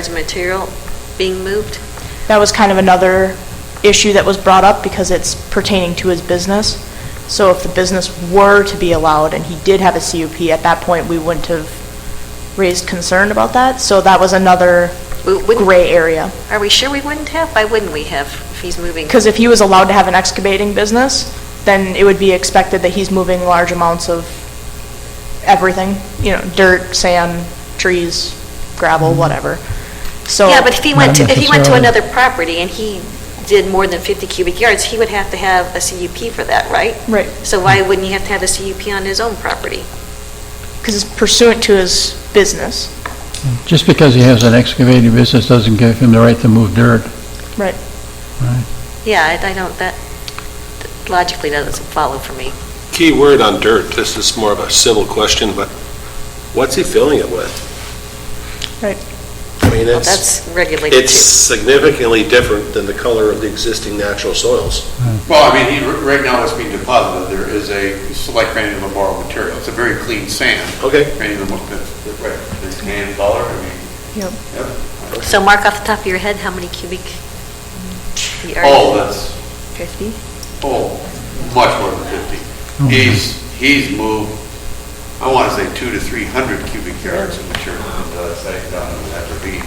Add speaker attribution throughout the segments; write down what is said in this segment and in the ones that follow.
Speaker 1: Is material being moved?
Speaker 2: That was kind of another issue that was brought up because it's pertaining to his business. So if the business were to be allowed and he did have a CUP, at that point, we wouldn't have raised concern about that. So that was another
Speaker 1: We wouldn't-
Speaker 2: gray area.
Speaker 1: Are we sure we wouldn't have? Why wouldn't we have if he's moving?
Speaker 2: Because if he was allowed to have an excavating business, then it would be expected that he's moving large amounts of everything, you know, dirt, sand, trees, gravel, whatever. So.
Speaker 1: Yeah, but if he went, to
Speaker 3: Not
Speaker 1: if he went to
Speaker 3: necessarily.
Speaker 1: another property and he did more than 50 cubic yards, he would have to have a CUP for that, right?
Speaker 2: Right.
Speaker 1: So why wouldn't he have to have a CUP on his own property?
Speaker 2: Because it's pursuant to his business.
Speaker 3: Just because he has an excavating business doesn't give him the right to move dirt.
Speaker 2: Right.
Speaker 3: Right.
Speaker 1: Yeah, I- I don't, that logically that doesn't follow for me.
Speaker 4: Key word on dirt, this is more of a civil question, but what's he filling it with?
Speaker 2: Right.
Speaker 4: I mean, it's,
Speaker 1: That's regulated
Speaker 4: it's
Speaker 1: too.
Speaker 4: significantly different than the color of the existing natural soils.
Speaker 5: Well, I mean, he, right now it's being deposited, there is a select granular borrowed material, it's a very clean sand.
Speaker 4: Okay.
Speaker 5: Granular, right, it's hand dollar, I mean.
Speaker 2: Yep.
Speaker 1: So mark off the top of your head, how many cubic yards?
Speaker 5: Oh, that's,
Speaker 1: 50?
Speaker 5: oh, much more than fifty. He's, he's moved, I wanna say two to three hundred cubic yards of material into that uh, site down in that ravine.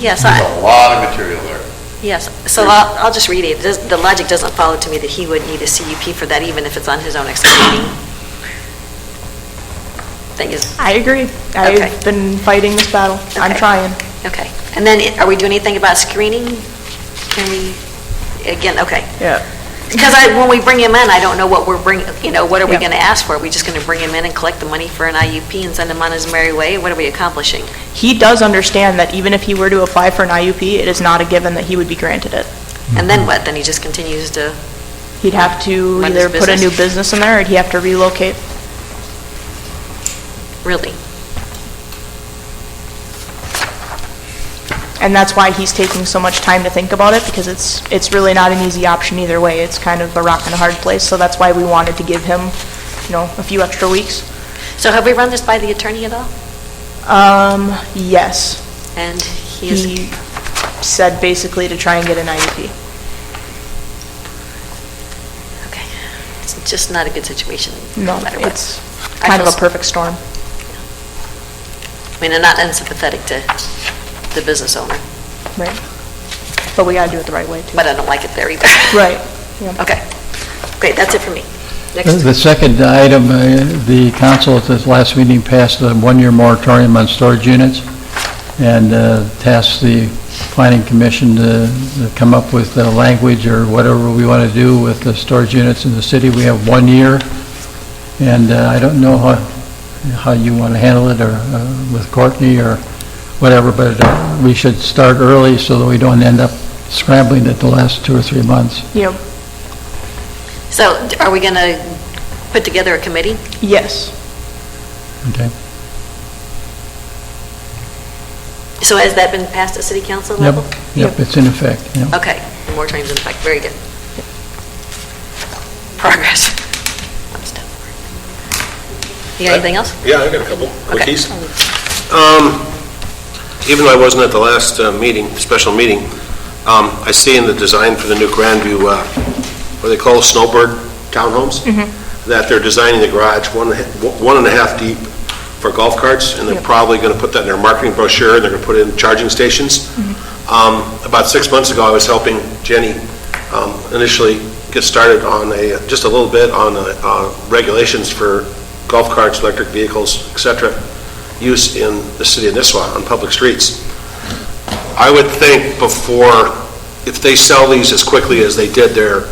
Speaker 1: Yes,
Speaker 5: There's
Speaker 1: I-
Speaker 5: a lot of material there.
Speaker 1: Yes, so I'll, I'll just read it. It does- The logic doesn't follow to me that he would need a CUP for that, even if it's on his own excavating. Thing is,
Speaker 2: I agree.
Speaker 1: Okay.
Speaker 2: I've been fighting this battle. I'm
Speaker 1: Okay.
Speaker 2: trying.
Speaker 1: okay. And then, i- are we doing anything about screening? Can we, again, okay.
Speaker 2: Yeah.
Speaker 1: Because I, when we bring him in, I don't know what we're bringing, you know, what are we
Speaker 2: Yeah.
Speaker 1: going to ask for? Are we just going to bring him in and collect the money for an IUP and send him on his merry way? What are we accomplishing?
Speaker 2: He does understand that even if he were to apply for an IUP, it is not a given that he would be granted it.
Speaker 1: And
Speaker 2: Mm-hmm.
Speaker 1: then what? Then he just continues to,
Speaker 2: He'd have to
Speaker 1: Run his
Speaker 2: either put a new
Speaker 1: business.
Speaker 2: business in there, or he'd have to relocate.
Speaker 1: really?
Speaker 2: And that's why he's taking so much time to think about it, because it's, it's really not an easy option either way. It's kind of a rock and a hard place, so that's why we wanted to give him, you know, a few extra weeks.
Speaker 1: So have we run this by the attorney at all?
Speaker 2: Um, yes.
Speaker 1: And he is...
Speaker 2: He said basically to try and get an IUP.
Speaker 1: Okay. It's just not a good situation,
Speaker 2: No,
Speaker 1: no matter what.
Speaker 2: it's kind of a
Speaker 1: feel-
Speaker 2: perfect storm.
Speaker 1: I mean, I'm not unsympathetic to the business owner,
Speaker 2: Right. But we gotta do it the right way, too.
Speaker 1: but I don't like it there either.
Speaker 2: Right, yeah.
Speaker 1: Okay. Great, that's it for me.
Speaker 3: The
Speaker 1: Next.
Speaker 3: the second item, uh, the council at this last meeting passed a one-year moratorium on storage units and uh, tasked the planning commission to to come up with the language or whatever we want to do with the storage units in the city. We have one year, and uh, I don't know how, how you want to handle it, or uh, with Courtney, or whatever, but uh, we should start early so that we don't end up scrambling at the last two or three months.
Speaker 2: Yep,
Speaker 1: So d- are we going to put together a committee?
Speaker 2: yes.
Speaker 3: Okay?
Speaker 1: So has that been passed at city council
Speaker 3: Yep,
Speaker 1: level?
Speaker 3: yep, it's in effect, yep.
Speaker 1: Okay, more times in fact, very good. Progress. I'm stuck. You got anything else?
Speaker 4: Yeah, I've got a couple
Speaker 1: Okay.
Speaker 4: quickies. Um, Even though I wasn't at the last uh, meeting, special meeting, um, I see in the design for the new Grandview, uh, what they call snowbird townhomes, that they're designing the garage one, and a ha- one and a half deep for golf carts, and they're
Speaker 2: Yep.
Speaker 4: probably going to put that in their marketing brochure, and they're going to put in charging stations. Um, About six months ago, I was helping Jenny um, initially get started on a, just a little bit on uh, uh, regulations for golf carts, electric vehicles, et cetera, use in the city of Nisswa on public streets. I would think before, if they sell these as quickly as they did their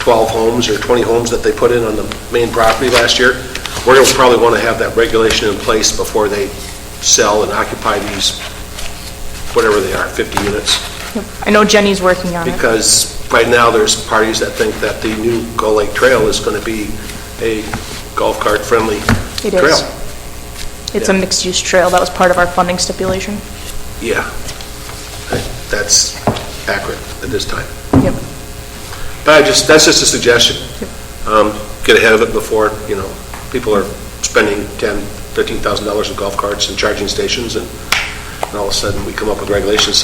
Speaker 4: 12 homes or 20 homes that they put in on the main property last year, we're going to probably want to have that regulation in place before they sell and occupy these, whatever they are, 50 units
Speaker 2: Uh-huh. I know Jenny's working on it.
Speaker 4: because right now, there's parties that think that the new Gull Lake Trail is going to be a golf cart-friendly
Speaker 2: It
Speaker 4: trail.
Speaker 2: is. It's a mixed-use trail, that was part of our funding stipulation.
Speaker 4: Yeah. That's accurate at this time.
Speaker 2: Yep.
Speaker 4: But I just, that's just a suggestion. Um, Get ahead of it before, you know, people are spending $10,000, $13,000 in golf carts and charging stations, and And all of a sudden, we come up with regulations